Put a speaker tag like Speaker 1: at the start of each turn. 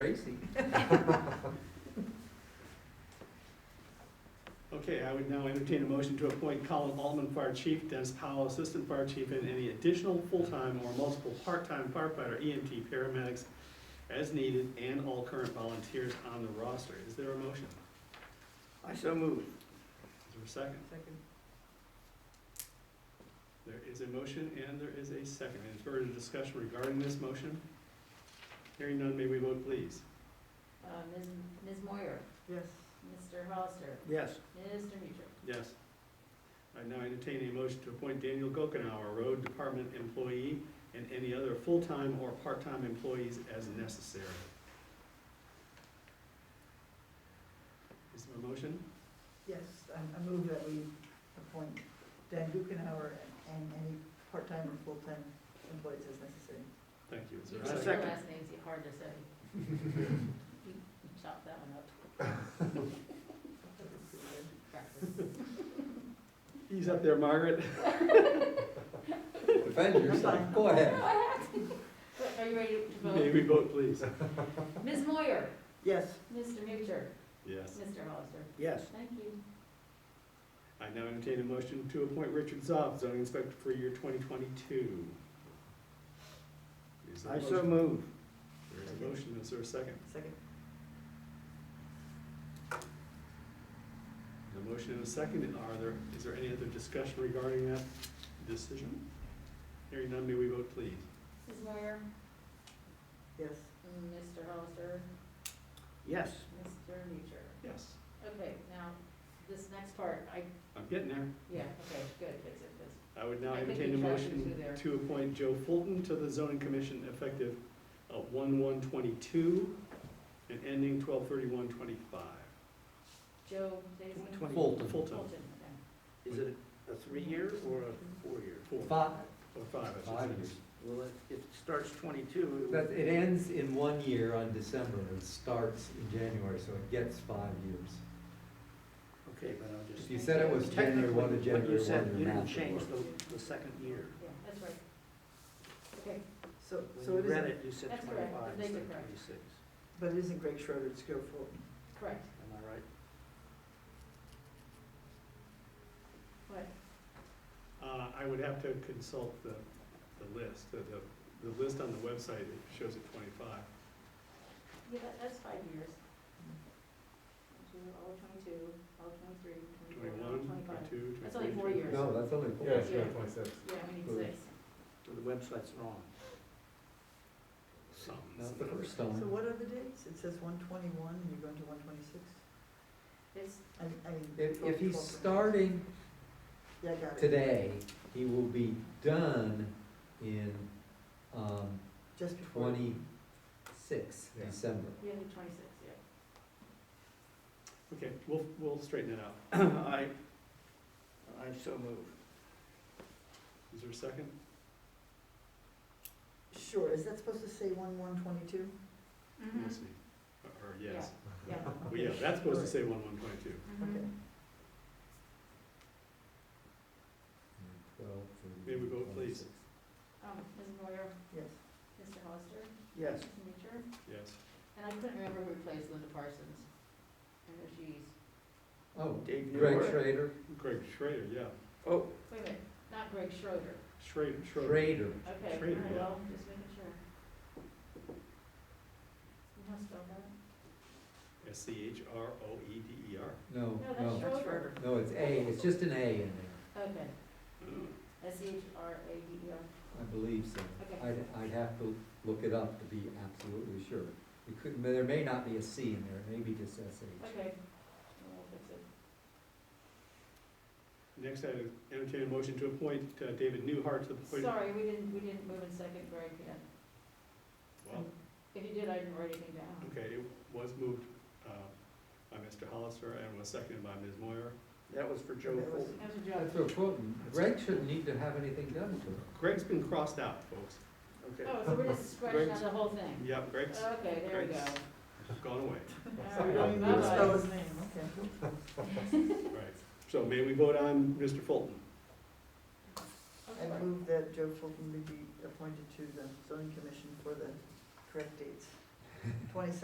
Speaker 1: Okay, I would now entertain a motion to appoint Colin Altman, Fire Chief, Dennis Powell, Assistant Fire Chief, and any additional full-time or multiple part-time firefighter, EMT, paramedics as needed, and all current volunteers on the roster. Is there a motion?
Speaker 2: I so move.
Speaker 1: Is there a second?
Speaker 2: Second.
Speaker 1: There is a motion and there is a second. Any further discussion regarding this motion? Hearing none, may we vote please?
Speaker 3: Uh, Ms. Ms. Moyer,
Speaker 2: Yes.
Speaker 3: Mr. Hollister,
Speaker 2: Yes.
Speaker 3: Mr. Mutrick.
Speaker 1: Yes. I now entertain a motion to appoint Daniel Gokenhour, road department employee, and any other full-time or part-time employees as necessary. Is there a motion?
Speaker 4: Yes, I I move that we appoint Dan Dukenhour and any part-time or full-time employees as necessary.
Speaker 1: Thank you. Is there
Speaker 3: You
Speaker 1: a
Speaker 3: know,
Speaker 2: A
Speaker 3: your
Speaker 2: second.
Speaker 3: last name's hard to say. You Chop that one up, practice.
Speaker 1: He's up there, Margaret.
Speaker 5: Defend yourself, go ahead.
Speaker 3: Are you ready to
Speaker 1: May
Speaker 3: vote?
Speaker 1: we vote, please?
Speaker 3: Ms. Moyer,
Speaker 4: Yes,
Speaker 3: Mr. Mutrick,
Speaker 1: Yes.
Speaker 3: Mr. Hollister.
Speaker 2: Yes.
Speaker 3: Thank you.
Speaker 1: I now entertain a motion to appoint Richard Zob, zoning inspector for year twenty twenty-two.
Speaker 2: I so move.
Speaker 1: There is a motion. Is there a second?
Speaker 4: second.
Speaker 1: A motion and a second, and are there, is there any other discussion regarding that decision? Hearing none, may we vote please?
Speaker 3: Ms. Moyer,
Speaker 4: Yes.
Speaker 3: Mr. Hollister,
Speaker 2: Yes.
Speaker 3: Mr. Mutrick.
Speaker 1: Yes.
Speaker 3: Okay, now, this next part, I,
Speaker 1: I'm getting there.
Speaker 3: yeah, okay, good, fix it, fix it.
Speaker 1: I would now
Speaker 3: I think
Speaker 1: entertain a
Speaker 3: you tried to
Speaker 1: motion
Speaker 3: do there.
Speaker 1: to appoint Joe Fulton to the zoning commission effective one one twenty-two and ending twelve thirty-one twenty-five.
Speaker 3: Joe, Jason?
Speaker 2: Twenty.
Speaker 5: Fulton.
Speaker 1: Fulton,
Speaker 3: Fulton, okay.
Speaker 2: Is it a three-year or a four-year?
Speaker 1: four, or
Speaker 5: Five,
Speaker 1: five, I should
Speaker 5: five
Speaker 1: say.
Speaker 5: years.
Speaker 2: Well, it- if it starts twenty-two, it
Speaker 5: That,
Speaker 2: would-
Speaker 5: it ends in one year on December, it starts in January, so it gets five years.
Speaker 2: okay, but I'll just.
Speaker 5: If you said it was January one to
Speaker 2: Technically,
Speaker 5: January
Speaker 2: what you said,
Speaker 5: one, your
Speaker 2: You didn't
Speaker 5: math would
Speaker 2: change
Speaker 5: work.
Speaker 2: the, the second year.
Speaker 3: Yeah, that's right. Okay,
Speaker 4: So, so
Speaker 2: When
Speaker 4: it
Speaker 2: you read
Speaker 4: isn't,
Speaker 2: it, you said
Speaker 3: That's correct.
Speaker 2: twenty-five
Speaker 3: They
Speaker 2: instead
Speaker 3: did
Speaker 2: of
Speaker 3: correct.
Speaker 2: twenty-six.
Speaker 4: but it isn't Greg Schroeder, it's Joe Fulton.
Speaker 3: correct.
Speaker 2: Am I right?
Speaker 3: What?
Speaker 1: Uh, I would have to consult the, the list, the, the, the list on the website, it shows it twenty-five.
Speaker 3: Yeah, that- that's five years. Two, all twenty-two, all twenty-three, twenty-four, all
Speaker 1: 21,
Speaker 3: twenty-five.
Speaker 1: 22,
Speaker 3: That's only four
Speaker 1: 23.
Speaker 3: years.
Speaker 5: No, that's only four.
Speaker 3: Yeah, it's got
Speaker 5: twenty-six.
Speaker 3: Yeah, we need six.
Speaker 2: So the website's wrong.
Speaker 1: Some.
Speaker 5: That's the first
Speaker 4: So
Speaker 5: time.
Speaker 4: what are the dates? It says one twenty-one and you're going to one twenty-six?
Speaker 3: It's,
Speaker 4: I, I mean.
Speaker 5: If, if he's
Speaker 4: 12.
Speaker 5: starting
Speaker 4: Yeah, I got it.
Speaker 5: today, he will be done in, um,
Speaker 4: Just before.
Speaker 5: twenty-six,
Speaker 1: Yeah.
Speaker 5: December.
Speaker 3: we have the twenty-six, yeah.
Speaker 1: Okay, we'll, we'll straighten it out. I,
Speaker 2: I so move.
Speaker 1: is there a second?
Speaker 3: Mm-hmm.
Speaker 4: Sure, is that supposed to say one one twenty-two?
Speaker 1: We'll see. Uh, Or- Or yes.
Speaker 3: Yeah,
Speaker 1: Well, yeah, that's supposed to say one one twenty-two.
Speaker 3: mhm.
Speaker 5: Twelve,
Speaker 1: May we vote,
Speaker 5: 26.
Speaker 1: please?
Speaker 3: Um, Ms. Moyer,
Speaker 4: Yes.
Speaker 3: Mr. Hollister,
Speaker 2: Yes.
Speaker 3: Ms. Mutcher,
Speaker 1: Yes.
Speaker 3: and I couldn't remember who replaced Linda Parsons. I know she's,
Speaker 5: Oh,
Speaker 2: Dave
Speaker 5: Greg
Speaker 2: Newbert.
Speaker 5: Schrader,
Speaker 1: Greg Schrader, yeah.
Speaker 2: Oh,
Speaker 3: wait a minute, not Greg Schroeder.
Speaker 1: Schrader, Schroeder.
Speaker 5: Schrader,
Speaker 3: Okay, all
Speaker 1: Schrader,
Speaker 3: right,
Speaker 1: yeah.
Speaker 3: well, just making sure. You know how to spell that?
Speaker 1: S C H R O E D E R.
Speaker 5: no,
Speaker 3: No, that's
Speaker 5: no,
Speaker 3: Schroeder.
Speaker 5: no, it's A, it's just an A in there.
Speaker 3: Okay, S C H R A D E R.
Speaker 5: I believe so.
Speaker 3: Okay.
Speaker 5: I'd, I'd have to look it up to be absolutely sure. It could, there may not be a C in there, it may be just SH.
Speaker 3: Okay, we'll fix it.
Speaker 1: Next, I entertain a motion to appoint uh, David Newhart to the. Board-
Speaker 3: Sorry, we didn't, we didn't move in second grade yet.
Speaker 1: Well,
Speaker 3: If you did, I didn't write anything down.
Speaker 1: okay, it was moved uh, by Mr. Hollister and was seconded by Ms. Moyer.
Speaker 2: that was for Joe
Speaker 4: That was-
Speaker 2: Fulton.
Speaker 3: That was a
Speaker 5: Yeah,
Speaker 3: joke.
Speaker 5: so Fulton, Greg shouldn't need to have anything done to him.
Speaker 1: Greg's been crossed out, folks.
Speaker 2: Okay.
Speaker 3: Oh, so we're just scratching out the whole thing?
Speaker 1: Yep, Greg's
Speaker 3: Okay, there we go.
Speaker 1: Greg's- gone away.
Speaker 3: All
Speaker 4: You don't
Speaker 3: right,
Speaker 4: even need to spell
Speaker 3: bye-bye.
Speaker 4: his name, okay.
Speaker 1: Right. So may we vote on Mr. Fulton?
Speaker 3: Okay.
Speaker 4: I move that Joe Fulton be appointed to the zoning commission for the correct dates. Twenty-six